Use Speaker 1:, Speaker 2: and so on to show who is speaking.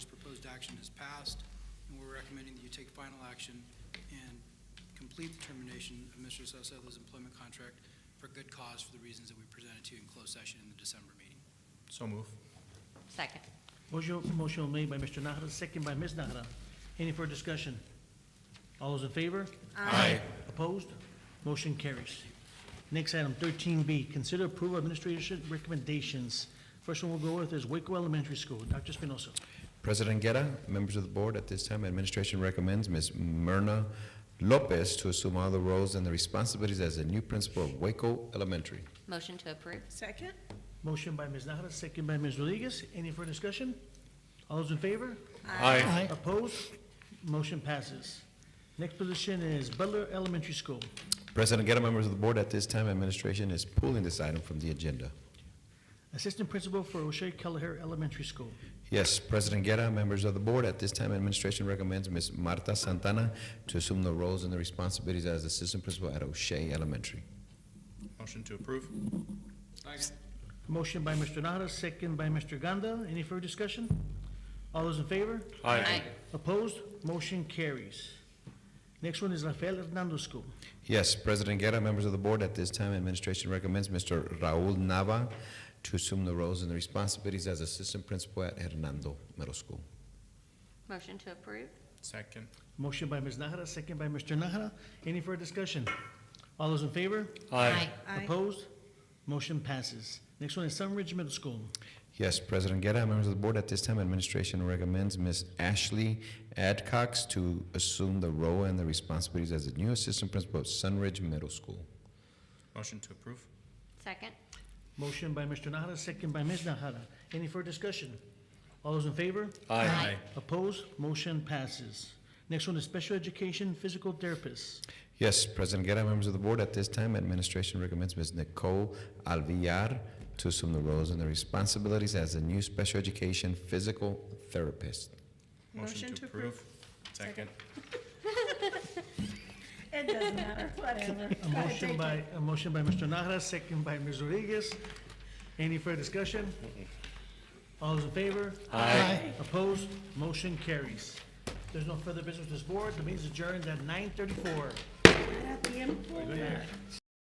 Speaker 1: action has passed, and we're recommending that you take final action and complete the termination of Mr. Sosthela's employment contract for good cause for the reasons that we presented to you in closed session in the December meeting.
Speaker 2: So move.
Speaker 3: Second.
Speaker 4: Motion, motion made by Mr. Nahara, second by Ms. Nahara. Any further discussion? All those in favor?
Speaker 2: Aye.
Speaker 4: Opposed? Motion carries. Next item, thirteen B, consider approval of administration recommendations. First one we'll go with is Waco Elementary School. Dr. Espinoza.
Speaker 5: President Guerra, members of the board, at this time, administration recommends Ms. Myrna Lopez to assume all the roles and the responsibilities as the new principal of Waco Elementary.
Speaker 3: Motion to approve.
Speaker 6: Second?
Speaker 4: Motion by Ms. Nahara, second by Ms. Rodriguez. Any further discussion? All those in favor?
Speaker 2: Aye.
Speaker 4: Opposed? Motion passes. Next position is Butler Elementary School.
Speaker 5: President Guerra, members of the board, at this time, administration is pulling this item from the agenda.
Speaker 4: Assistant Principal for O'Shea Kelleher Elementary School.
Speaker 5: Yes, President Guerra, members of the board, at this time, administration recommends Ms. Marta Santana to assume the roles and the responsibilities as assistant principal at O'Shea Elementary.
Speaker 2: Motion to approve.
Speaker 4: Motion by Mr. Nahara, second by Mr. Ganda. Any further discussion? All those in favor?
Speaker 3: Aye.
Speaker 4: Opposed? Motion carries. Next one is Rafael Hernando School.
Speaker 5: Yes, President Guerra, members of the board, at this time, administration recommends Mr. Raul Nava to assume the roles and the responsibilities as assistant principal at Hernando Middle School.
Speaker 3: Motion to approve.
Speaker 2: Second.
Speaker 4: Motion by Ms. Nahara, second by Mr. Nahara. Any further discussion? All those in favor?
Speaker 6: Aye.
Speaker 4: Opposed? Motion passes. Next one is Sunridge Middle School.
Speaker 5: Yes, President Guerra, members of the board, at this time, administration recommends Ms. Ashley Adcox to assume the role and the responsibilities as the new assistant principal of Sunridge Middle School.
Speaker 2: Motion to approve.
Speaker 3: Second.
Speaker 4: Motion by Mr. Nahara, second by Ms. Nahara. Any further discussion? All those in favor?
Speaker 3: Aye.
Speaker 4: Opposed? Motion passes. Next one is Special Education Physical Therapists.
Speaker 5: Yes, President Guerra, members of the board, at this time, administration recommends Ms. Nicole Alviar to assume the roles and the responsibilities as the new special education physical therapist.
Speaker 6: Motion to approve.
Speaker 2: Second.
Speaker 6: It doesn't matter,
Speaker 4: A
Speaker 6: whatever. Gotta take
Speaker 4: motion
Speaker 6: it.
Speaker 4: by, a motion by Mr. Nahara, second by Ms. Rodriguez. Any further discussion? All those in favor? Aye. Opposed? Motion carries. There's no further business with this board. The meeting is adjourned at nine thirty-four.
Speaker 6: Era tiempo.